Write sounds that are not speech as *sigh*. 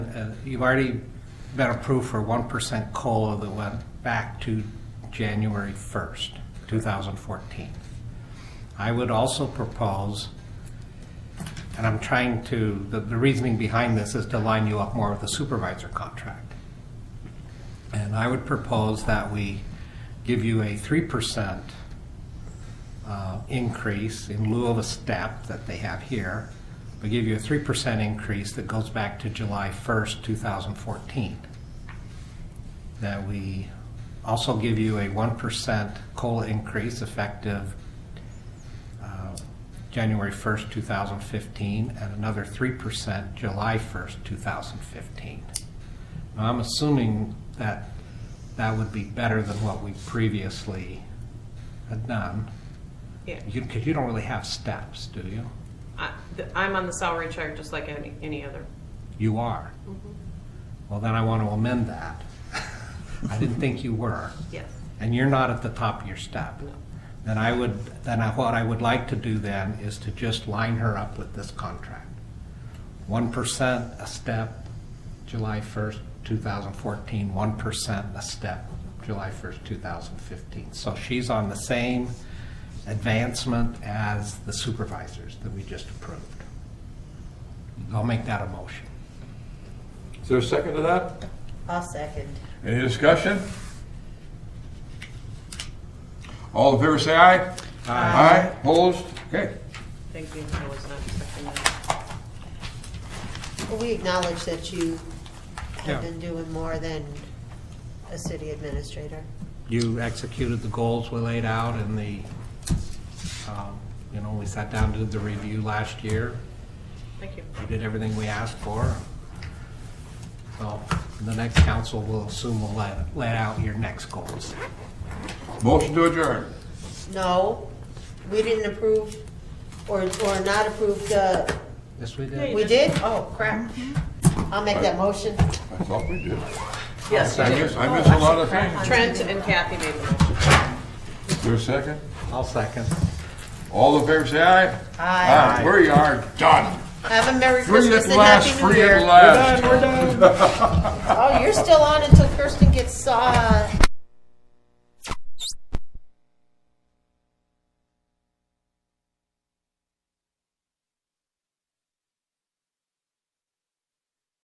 uh, you've already been approved for 1% COLA that went back to January 1st, 2014. I would also propose, and I'm trying to, the the reasoning behind this is to line you up more with the supervisor contract. And I would propose that we give you a 3% uh, increase in lieu of a step that they have here. We give you a 3% increase that goes back to July 1st, 2014. That we also give you a 1% COLA increase effective uh, January 1st, 2015, and another 3% July 1st, 2015. Now, I'm assuming that that would be better than what we previously had done. Yeah, Because you don't really have steps, do you? I, th- I'm on the salary chart just like any, any other. You are. Well, then I want to amend that. *laughs* I didn't think you were. Yes. And you're not at the top of your step. No. Then I would, then I, what I would like to do then is to just line her up with this contract. One percent a step, July first, two thousand fourteen, one percent a step, July first, two thousand fifteen. So she's on the same advancement as the supervisors that we just approved. I'll make that a motion. Is there a second to that? I'll second. Any discussion? All in favor, say aye. Aye. Opposed? Okay. Thank you, I was not expecting that. Well, we acknowledge that you Yeah. have been doing more than a city administrator. you executed the goals we laid out in the, um, you know, we sat down, did the review last year. Thank you. We did everything we asked for. So the next council will assume will lay, lay out your next goals. Motion to adjourn. No, we didn't approve or, or not approve the, Yes, we Yeah, did. you we did? Oh, crap. I'll make that motion. I thought we did. Yes, I miss, Oh, I miss a lot of things. Trent and Kathy made the motion. Is there a second? I'll second. All in favor, say aye. Aye. We are done. Have a Merry Free Christmas at and last, Happy New free at Year. last. Oh, you're still on until Kirsten gets, uh,